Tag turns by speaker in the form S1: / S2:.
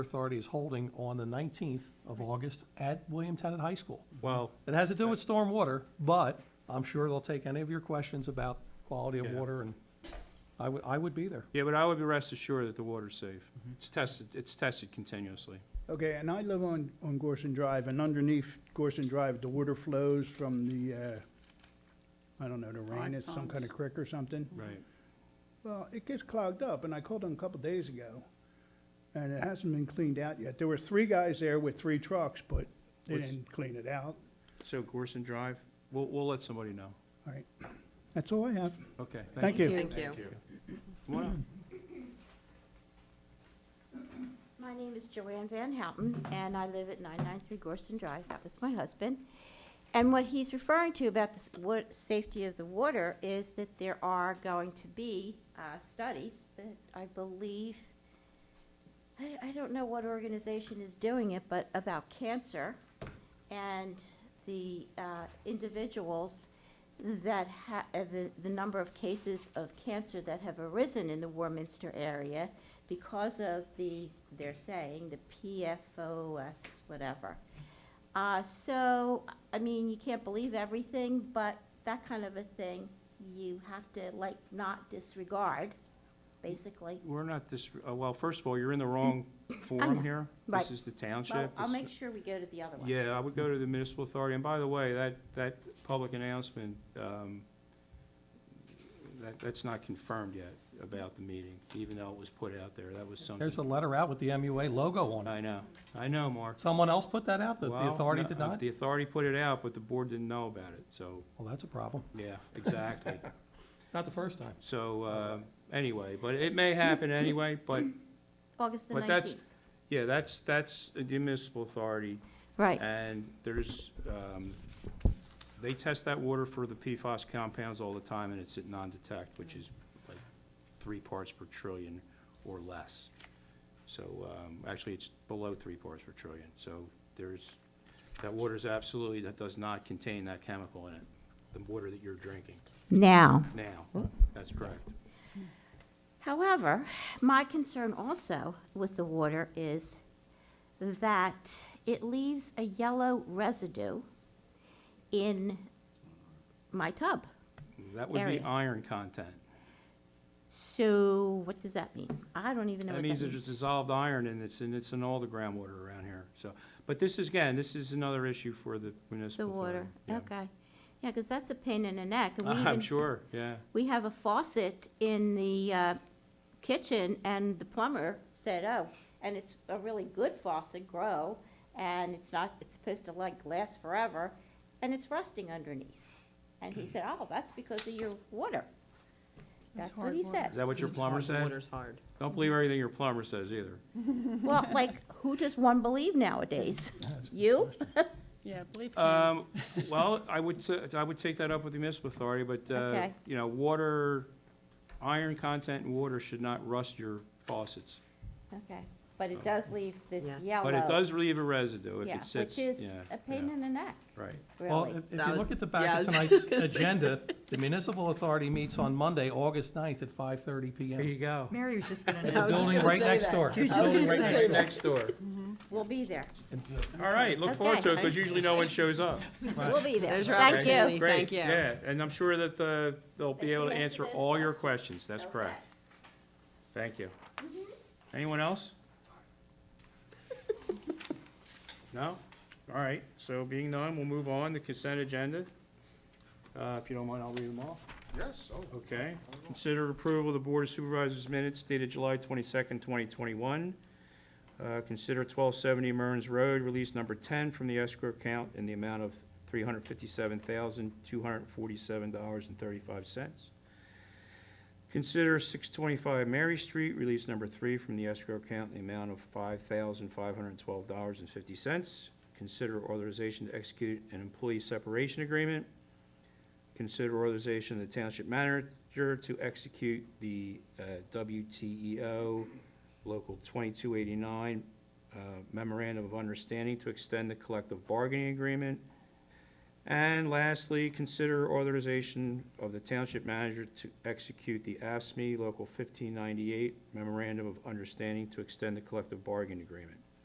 S1: Authority is holding on the 19th of August at William Tenet High School.
S2: Well,
S1: It has to do with stormwater, but I'm sure they'll take any of your questions about quality of
S2: Yeah.
S1: water, and I would, I would be there.
S2: yeah, but I would be rest assured that the water's safe.
S3: Mm-hmm.
S2: It's tested, it's tested continuously.
S4: Okay, and I live on, on Gorson Drive, and underneath Gorson Drive, the water flows from the, uh, I don't know, the rain, it's some kind of
S5: Ponds.
S4: creek or something.
S3: Mm-hmm.
S2: Right.
S4: Well, it gets clogged up, and I called them a couple days ago, and it hasn't been cleaned out yet. There were three guys there with three trucks, but they
S2: Which-
S4: didn't clean it out.
S2: So Gorson Drive, we'll, we'll let somebody know.
S4: All right, that's all I have.
S2: Okay.
S4: Thank you.
S5: Thank you.
S2: Come on up.
S3: My name is Joanne Van Houten, and I live at 993 Gorson Drive. That was my husband. And what he's referring to about the s- what, safety of the water is that there are going to be uh, studies that I believe, I, I don't know what organization is doing it, but about cancer and the uh, individuals that ha, uh, the, the number of cases of cancer that have arisen in the Warminster area because of the, they're saying, the PFOS, whatever. Uh, so, I mean, you can't believe everything, but that kind of a thing, you have to like not disregard, basically.
S2: We're not this, uh, well, first of all, you're in the wrong
S3: know.
S2: forum here. This
S3: Mm. Right.
S2: is the
S3: Well,
S2: township.
S3: I'll
S2: This-
S3: make sure we go to the other one.
S2: Yeah, I would go to the municipal authority, and by the way, that, that public announcement, um, that, that's not confirmed yet about the meeting, even though it was put out there, that was
S1: There's a
S2: something.
S1: letter out with the MUA logo on it.
S2: I know, I know, Mark.
S1: Someone else put that out, that the
S2: Well,
S1: authority
S2: no, uh,
S1: did not?
S2: The authority put it out, but the board didn't know about it, so,
S1: Well, that's a problem.
S2: yeah, exactly.
S1: Not the first time.
S2: So, uh, anyway, but it may happen anyway, but,
S3: August the
S2: but that's,
S3: nineteenth.
S2: yeah, that's, that's the municipal authority.
S3: Right,
S2: And there's, um, they test that water for the PFAS compounds all the time, and it's at non-detect, which is like three parts per trillion or less. So, um, actually, it's below three parts per trillion. So there's, that water is absolutely, that does not contain that chemical in it, the water that you're drinking
S3: now.
S2: now. That's correct.
S3: However, my concern also with the water is that it leaves a yellow residue in my tub.
S2: That would be
S3: Area.
S2: iron content.
S3: So what does that mean? I don't even know
S2: That
S3: what
S2: means
S3: that
S2: there's
S3: means.
S2: dissolved iron and it's, and it's in all the groundwater around here, so. But this is, again, this is another issue for the municipal
S3: The water,
S2: authority, yeah.
S3: okay. Yeah, because that's a pain in the neck. and we
S2: I'm
S3: even-
S2: sure, yeah.
S3: We have a faucet in the uh, kitchen and the plumber said, oh, and it's a really good faucet, grow, and it's not, it's supposed to like last forever, and it's rusting underneath. And he said, oh, that's because of your water. That's what
S5: hard
S3: he
S5: water.
S2: Is
S3: said.
S2: that what your
S5: It's
S2: plumber
S5: hard. The
S2: said?
S5: Water's hard.
S2: Don't believe everything your plumber says either.
S3: Well, like, who does one believe nowadays? You?
S5: Yeah, believe
S2: Um, well, I would, t- I would take that up with the municipal authority, but, uh,
S3: Okay.
S2: you know, water, iron content in water should not rust your faucets.
S3: Okay, but it does leave this
S5: Yes.
S3: yellow.
S2: But it does leave a residue if
S3: yeah,
S2: it sits,
S3: Which
S2: yeah,
S3: is a pain
S2: yeah,
S3: in the neck,
S2: right.
S1: Well, if-
S3: really.
S1: if
S5: That
S1: you
S5: was-
S1: look at the
S5: yeah, I
S1: back of
S5: was
S1: tonight's
S5: gonna say.
S1: agenda, the municipal authority meets on Monday, August 9th at 5:30
S2: There you
S1: PM.
S2: go.
S6: Mary was just gonna
S1: At
S5: I
S1: the
S5: was just
S1: building
S5: gonna
S1: right
S5: say
S1: next
S5: that.
S1: door.
S5: She was
S1: The
S5: just
S1: building
S5: gonna
S1: right
S5: say
S1: next
S5: that.
S2: Next door.
S3: We'll be there.
S2: All right, look forward
S3: Okay.
S2: to it, because usually no one shows up.
S3: We'll be there.
S5: There's your
S3: Thank you.
S5: opportunity.
S2: Great,
S5: Thank you.
S2: Yeah, and I'm sure that the, they'll be able to
S3: Yes,
S2: answer
S3: yes.
S2: all your questions, that's correct.
S3: Okay.
S2: Thank you. Anyone else? No? All right, so being none, we'll move on to consent agenda. Uh, if you don't mind, I'll read them off.
S7: Yes, oh,
S2: Okay. Consider approval of the Board of Supervisors minutes dated July twenty-second, twenty twenty-one. Uh, consider twelve seventy Murns Road, release number ten from the escrow account in the amount of three hundred fifty-seven thousand, two hundred forty-seven dollars and thirty-five cents. Consider six twenty-five Mary Street, release number three from the escrow account in the amount of five thousand, five hundred twelve dollars and fifty cents. Consider authorization to execute an employee separation agreement. Consider authorization of the township manager to execute the uh, WTEO Local 2289 uh, memorandum of understanding to extend the collective bargaining agreement. And lastly, consider authorization of the township manager to execute the AFSMI Local 1598 Memorandum of Understanding to extend the collective bargaining agreement.